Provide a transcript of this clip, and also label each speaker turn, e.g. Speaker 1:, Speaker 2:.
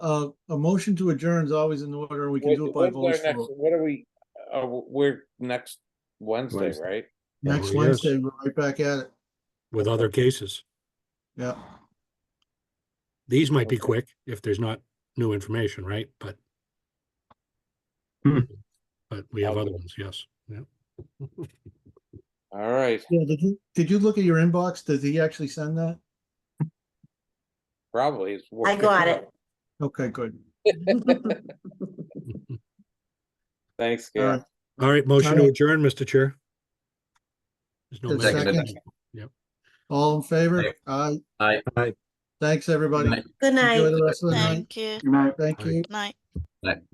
Speaker 1: uh, a motion to adjourn is always in order, and we can
Speaker 2: What-
Speaker 1: do it by
Speaker 2: when's
Speaker 1: voice
Speaker 2: our next-
Speaker 1: vote.
Speaker 2: What are we, uh, we're next Wednesday,
Speaker 3: Wednesday.
Speaker 2: right?
Speaker 1: Next
Speaker 3: Yes.
Speaker 1: Wednesday, we're right back at it,
Speaker 3: with other cases.
Speaker 1: yeah.
Speaker 3: These might be
Speaker 2: Okay.
Speaker 3: quick if there's not new information, right? But
Speaker 4: Hmm.
Speaker 3: but we have
Speaker 2: I'll
Speaker 3: other
Speaker 2: do it.
Speaker 3: ones, yes, yeah.
Speaker 2: All right,
Speaker 1: Yeah, did you, did you look at your inbox? Did he actually send that?
Speaker 2: probably. it's
Speaker 5: I
Speaker 2: working.
Speaker 5: got it.
Speaker 1: Okay, good.
Speaker 2: Thanks,
Speaker 1: All
Speaker 2: Gail.
Speaker 1: right.
Speaker 3: All right, motion to
Speaker 1: right.
Speaker 3: adjourn, Mr. Chair. There's no
Speaker 1: Just
Speaker 3: motion.
Speaker 1: seconded. All in favor?
Speaker 4: Aye.
Speaker 1: Aye.
Speaker 4: Aye. Aye.
Speaker 1: Thanks, everybody.
Speaker 4: Good
Speaker 5: Good
Speaker 1: Enjoy
Speaker 5: night.
Speaker 1: the rest of the night.
Speaker 6: Thank you.
Speaker 1: Thank
Speaker 3: Aye.
Speaker 1: you.
Speaker 6: Night.